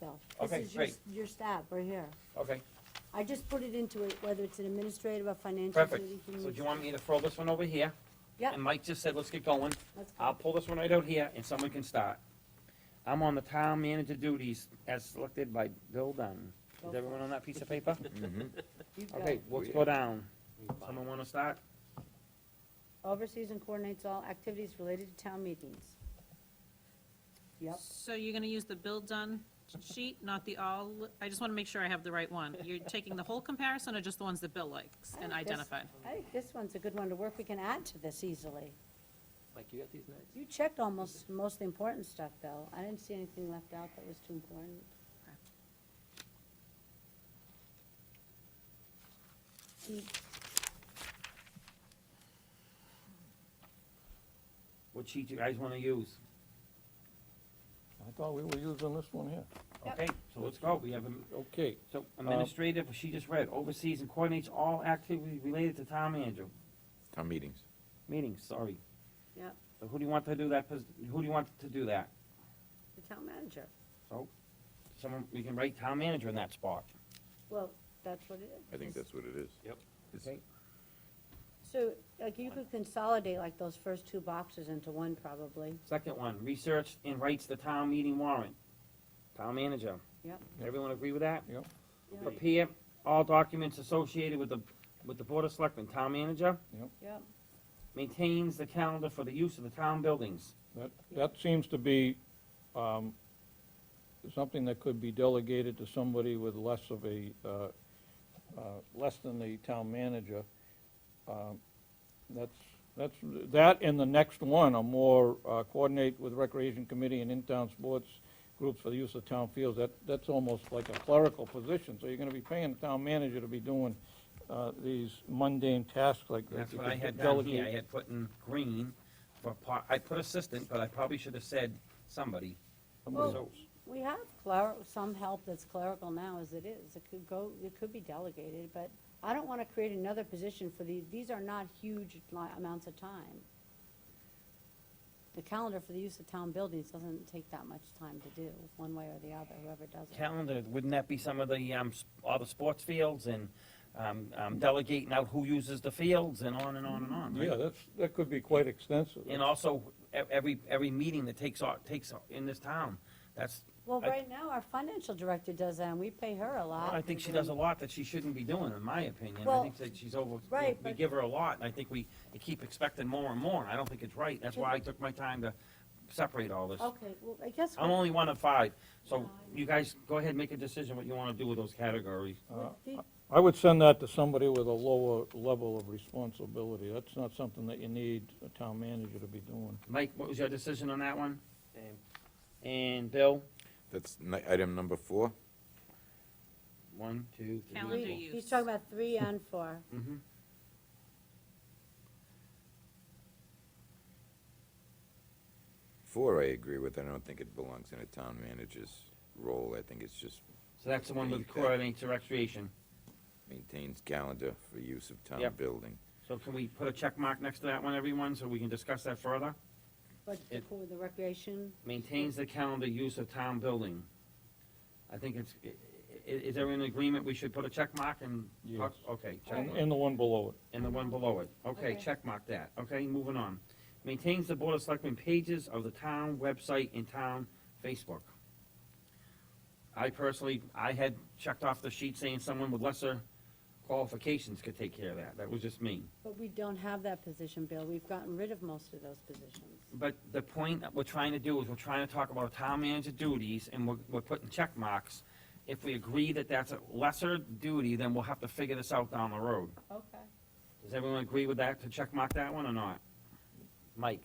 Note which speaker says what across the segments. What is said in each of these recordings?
Speaker 1: no. This
Speaker 2: Okay,
Speaker 1: is your-
Speaker 2: great.
Speaker 1: Your stop, right here.
Speaker 2: Okay,
Speaker 1: I just put it into it, whether it's an administrative or financial
Speaker 2: perfect.
Speaker 1: committee.
Speaker 2: So do you want me to throw this one over here?
Speaker 1: Yeah,
Speaker 2: And Mike just said, let's get going.
Speaker 1: let's go.
Speaker 2: I'll pull this one right out here and someone can start. I'm on the town manager duties as selected by Bill Dunn.
Speaker 1: Go
Speaker 2: Is
Speaker 1: for
Speaker 2: everyone on that piece of paper?
Speaker 1: You go.
Speaker 2: Okay, let's go down. Someone wanna start?
Speaker 1: Oversees and coordinates all activities related to town meetings. Yep,
Speaker 3: So you're gonna use the bill done sheet, not the all, I just wanna make sure I have the right one. You're taking the whole comparison or just the ones that Bill likes and
Speaker 1: I like this.
Speaker 3: identified?
Speaker 1: I think this one's a good one to work, we can add to this easily.
Speaker 4: Mike, you got these notes?
Speaker 1: You checked almost, most important stuff, though. I didn't see anything left out that was too important.
Speaker 2: What sheet you guys wanna use?
Speaker 5: I thought we were using this one here.
Speaker 1: Yep.
Speaker 2: Okay, so let's go. We have a
Speaker 5: Okay,
Speaker 2: So administrative, she just read, oversees and coordinates all activities related to town manager,
Speaker 6: Town meetings.
Speaker 2: meetings, sorry.
Speaker 1: Yep.
Speaker 2: So who do you want to do that, pos- who do you want to do that?
Speaker 1: The town manager.
Speaker 2: So, someone, we can write town manager in that spot.
Speaker 1: Well, that's what it is.
Speaker 6: I think that's what it is.
Speaker 4: Yep.
Speaker 6: It's-
Speaker 2: Okay.
Speaker 1: So, like, you could consolidate like those first two boxes into one, probably.
Speaker 2: Second one, research and writes the town meeting warrant. Town manager.
Speaker 1: Yep.
Speaker 2: Everyone agree with that?
Speaker 5: Yep.
Speaker 1: Yep.
Speaker 2: Prepare all documents associated with the, with the board of selectmen, town manager
Speaker 1: Yep.
Speaker 2: maintains the calendar for the use of the town buildings.
Speaker 5: that, that seems to be, um, something that could be delegated to somebody with less of a, uh, uh, less than the town manager. Um, That's, that's, that and the next one are more, uh, coordinate with recreation committee and in-town sports groups for the use of town fields. That, that's almost like a clerical position, so you're gonna be paying the town manager to be doing, uh, these mundane tasks like that.
Speaker 2: That's
Speaker 5: You
Speaker 2: what
Speaker 5: could
Speaker 2: I had down
Speaker 5: delegate-
Speaker 2: here, I had put in green for po I put assistant, but I probably should have said somebody.
Speaker 5: Somebody
Speaker 2: Well-
Speaker 5: else.
Speaker 1: We have cler, some help that's clerical now as it is. It could go, it could be delegated, but I don't want to create another position for these. These are not huge li- amounts of time. The calendar for the use of town buildings doesn't take that much time to do, one way or the other, whoever does it.
Speaker 2: Calendar, wouldn't that be some of the, um, s- all the sports fields and, um, um, delegating out who uses the fields and on and on and on, right?
Speaker 5: Yeah, that's, that could be quite extensive.
Speaker 2: And also, e- every, every meeting that takes, au- takes au- in this town, that's,
Speaker 1: Well,
Speaker 2: I-
Speaker 1: right now, our financial director does that, and we pay her a lot.
Speaker 2: I think she does a lot that she shouldn't be doing, in my opinion. I
Speaker 1: Well,
Speaker 2: think that she's over,
Speaker 1: right,
Speaker 2: we
Speaker 1: but-
Speaker 2: give her a lot, and I think we keep expecting more and more, and I don't think it's right. That's why I took my time to separate all this.
Speaker 1: Okay, well, I guess.
Speaker 2: I'm only one of five, so you guys go ahead and make a decision what you wanna do with those categories.
Speaker 1: what the-
Speaker 5: I would send that to somebody with a lower level of responsibility. That's not something that you need a town manager to be doing.
Speaker 2: Mike, what was your decision on that one?
Speaker 4: Same.
Speaker 2: And Bill?
Speaker 6: That's ni- item number four.
Speaker 2: One, two, three.
Speaker 3: Calendar
Speaker 2: four.
Speaker 3: use.
Speaker 1: He's talking about three and four.
Speaker 2: Mhm.
Speaker 6: Four, I agree with. I don't think it belongs in a town manager's role. I think it's just
Speaker 2: So that's the one with coordinates and recreation.
Speaker 6: maintains calendar for use of town
Speaker 2: Yep.
Speaker 6: building.
Speaker 2: So can we put a check mark next to that one, everyone, so we can discuss that further?
Speaker 1: But the
Speaker 2: It-
Speaker 1: co- the recreation,
Speaker 2: Maintains the calendar use of town building. I think it's, i- i- is everyone in agreement, we should put a check mark and,
Speaker 5: Yes.
Speaker 2: okay, check
Speaker 5: And,
Speaker 2: mark.
Speaker 5: and the one below it.
Speaker 2: And the one below it. Okay,
Speaker 1: Okay.
Speaker 2: check mark that. Okay, moving on. Maintains the Board of Selectmen pages of the town website and town Facebook. I personally, I had checked off the sheet saying someone with lesser qualifications could take care of that. That was just me.
Speaker 1: but we don't have that position, Bill. We've gotten rid of most of those positions.
Speaker 2: But the point that we're trying to do is we're trying to talk about town manager duties and we're, we're putting check marks. If we agree that that's a lesser duty, then we'll have to figure this out down the road.
Speaker 1: Okay.
Speaker 2: Does everyone agree with that, to check mark that one or not? Mike?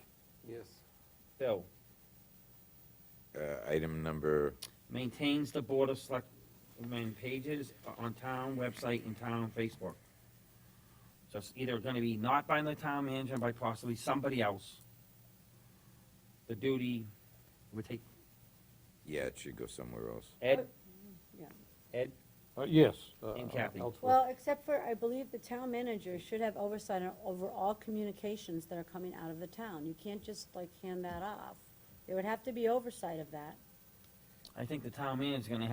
Speaker 4: Yes.
Speaker 2: Bill.
Speaker 6: Uh, item number,
Speaker 2: maintains the Board of Selectmen pages on town website and town Facebook. So it's either gonna be not by the town manager, by possibly somebody else. The duty would take,
Speaker 6: yeah, it should go somewhere else.
Speaker 2: Ed,
Speaker 1: Yeah.
Speaker 2: Ed,
Speaker 5: Uh, yes. uh,
Speaker 2: And Kathy.
Speaker 5: elsewhere.
Speaker 1: Well, except for, I believe the town manager should have oversight on- over all communications that are coming out of the town. You can't just like hand that off. There would have to be oversight of that.
Speaker 2: I think the town manager's gonna